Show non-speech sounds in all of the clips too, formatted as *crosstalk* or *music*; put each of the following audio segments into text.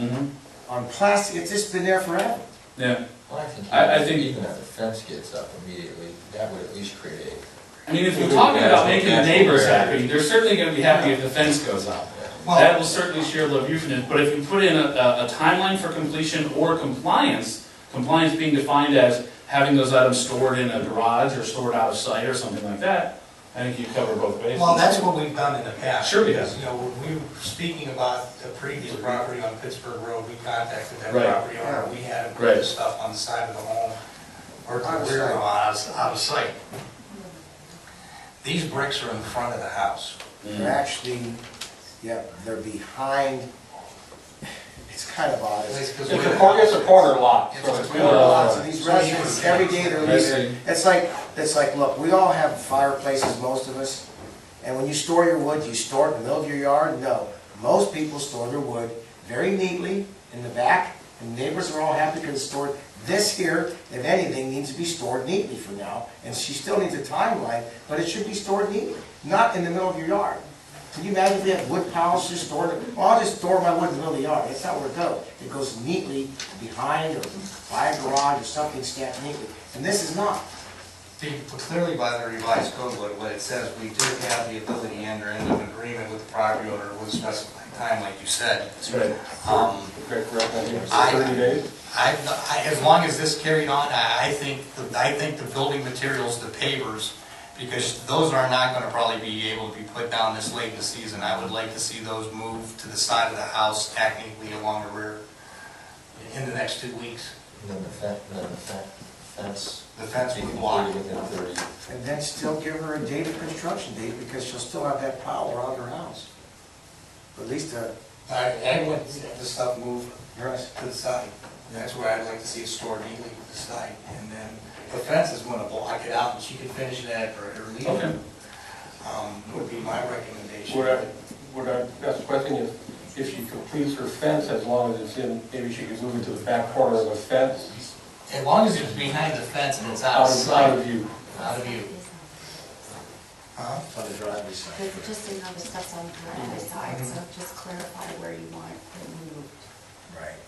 Mhm. on plastic, it's just been there forever. Yeah, Well, I think I- I even- think- even if the fence gets up immediately, that would at least create I mean, if we're talking about making the neighbors happy, they're certainly gonna be happy if the fence goes up. That will certainly share love euphemism, but if you put in a, a a timeline for completion or compliance, compliance being defined as having those items stored in a garage or stored out of sight or something like that, I think you cover both bases. Well, that's what we've done in the past. Sure we have. Because, You know, when we were speaking about the previous property on Pittsburgh Road, we contacted that Right. property owner. We had him put Right. the stuff on the side of the home or Out of the rear was out of sight. These bricks are in front of the house. They're actually, yeah, they're behind, it's kind of odd. It's- It's It's a corner, it's a corner lot, It's so a it's We own really, lots uh, of these residents, every day they're leaving. Messy. It's like, it's like, look, we all have fireplaces, most of us, and when you store your wood, you store it in the middle of your yard? No. Most people store their wood very neatly in the back, and neighbors are all happy because it's stored. This here, if anything, needs to be stored neatly for now, and she still needs a timeline, but it should be stored neatly, not in the middle of your yard. Can you imagine if we have wood piles just stored, well, I'll just store my wood in the middle of the yard, that's not where it goes. It goes neatly behind or by a garage or something stacked neatly, and this is not. The- Clearly by the revised code, what what it says, we do have the ability to enter into an agreement with the property owner with a specified time, like you said. That's right. Um, correct, correct, I think it's I- thirty days. I, I- as long as this carried on, I, I think, the- I think the building materials, the pavers, because those are not gonna probably be able to be put down this late in the season. I would like to see those moved to the side of the house technically along the rear in the next two weeks. Then the fence, then the fe- fence. The fence be would completed block. Within thirty. And then still give her a date of construction date, because she'll still have that pile around her house. At least, uh, I, I want the stuff moved yes. to the side. That's where I'd like to see it stored neatly to the side. And then the fence is gonna block it out and she can finish that or or leave Okay. it. Um, would be my recommendation. What I, what I, that's the question is, if she completes her fence, as long as it's in, maybe she could move it to the back corner of the fence, As long as it's behind the fence and it's out of out of, out sight, of view. out of view. Huh? on the driver's side. But just another stuff's on the other side, so just clarify where you want it moved. Right.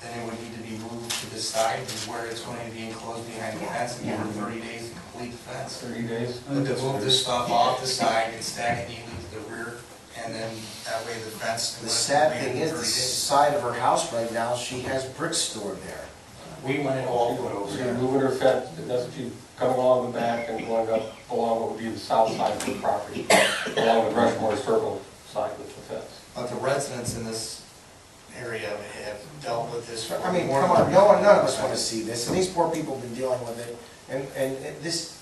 Then it would need to be moved to the side is where it's going to be enclosed behind the fence and give her thirty days to complete the fence. Thirty days? But to move this stuff off the side and stack it neatly to the rear and then that way the fence. The sad thing is, the side of her house right now, she has bricks stored there. We want it all put over She's there. moving her fence, that's what she's coming along the back and going up along what would be the south side of the property, along the Rushmore Circle side with the fence. But the residents in this area have dealt with this. for I mean, more come than- on, no one, none of us want to see this, and these poor people have been dealing with it, and, and it- this,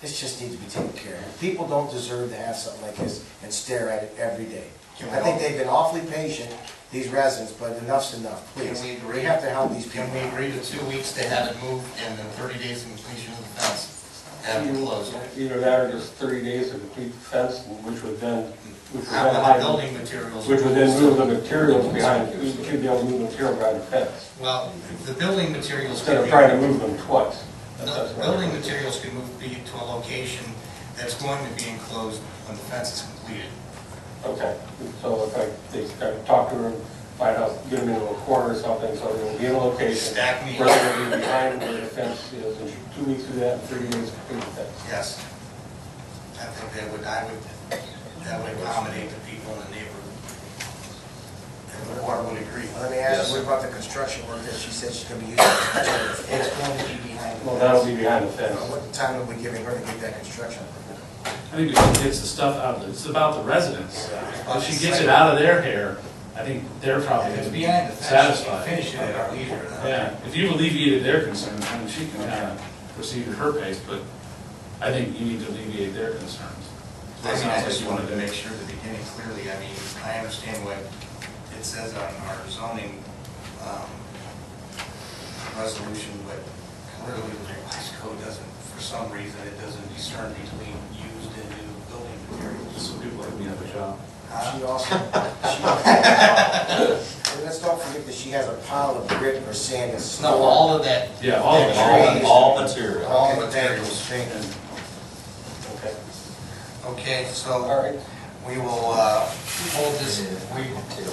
this just needs to be taken care of. People don't deserve to have something like this and stare at it every day. Can we I think all- they've been awfully patient, these residents, but enough's enough, please. Can we agree? have to help these people. Can we agree to two weeks to have it moved and then thirty days of completion of the fence? Have it closed. Either that or just thirty days to complete the fence, which would then, which would How then about hide the the building materials? Which would then move the materials behind, you should be able to move the material behind the fence, Well, the building materials. instead could of be- trying to move them twice. That's- No, that's the what Uh, I- Building materials could move be to a location that's going to be enclosed when the fence is completed. Okay, so if I, they, I talk to her, find out, get them into a corner or something, so they'll be in a location. Stack me. Where they'll be behind where the fence is, and two weeks do that, and thirty days to complete the fence. Yes. I think that would, I would, that would accommodate the people in the neighborhood. And the board would agree. Let me ask you, what about the construction work that she said she's gonna be using? It's going to be behind. the Well, that'll fence. be behind the fence. What time are we giving her to get that construction? work? I think if she gets the stuff out, of it, it's about the residents. If she gets it out of their hair, I think they're probably If it's gonna be behind the fence, you can satisfied. finish it at our leisure. Yeah, if you've alleviated their concerns, then she can kind of proceed at her pace, but I think you need to alleviate their concerns. So I it mean, sounds I like just you wanna wanted to do- make sure at the beginning clearly, I mean, I understand what it says on our zoning, um, resolution, but clearly the revised code doesn't, for some reason, it doesn't discern between used and new building This materials. will do like me up a job. Huh? She *laughs* also, she also, and let's don't forget that she has a pile of grit or sand and snow. No, all of that, Yeah, all of All- it. all material. all Okay, thank you, materials. thank you. Okay, Okay, all so right. we will, uh, hold this, we Take a